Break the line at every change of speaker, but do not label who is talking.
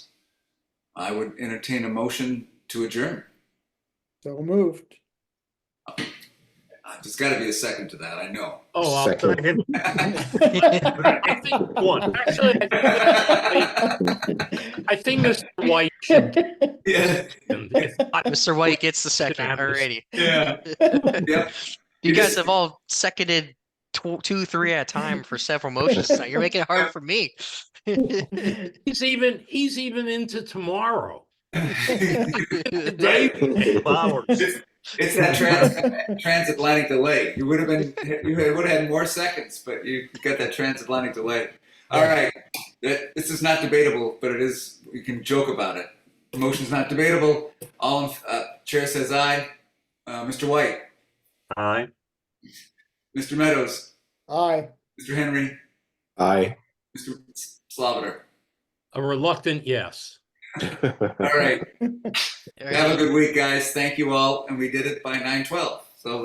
I would entertain a motion to adjourn.
So moved.
Uh, There's got to be a second to that, I know.
Oh, I'll
Second.
second. I think one. Actually, I think- I think Mr. White should.
Yeah,
If not,
Mr. White gets the second.
happens.
Alrighty.
yeah, yep.
You
It
guys
is-
have all seconded tw- two, three at a time for several motions tonight. You're making it hard for me.
He's even, he's even into tomorrow. Today,
Right?
hours.
It's it's that trans- transatlantic delay. You would have been, you would have had more seconds, but you got that transatlantic delay. All right, That- this is not debatable, but it is, we can joke about it. The Motion's not debatable. All, in- uh, Chair says aye. Uh, Mr. White,
Aye.
Mr. Meadows,
Aye.
Mr. Henry,
Aye.
Mr. Slaviter.
A reluctant yes.
All right. Have a
Alrighty.
good week, guys. Thank you all. And we did it by 912.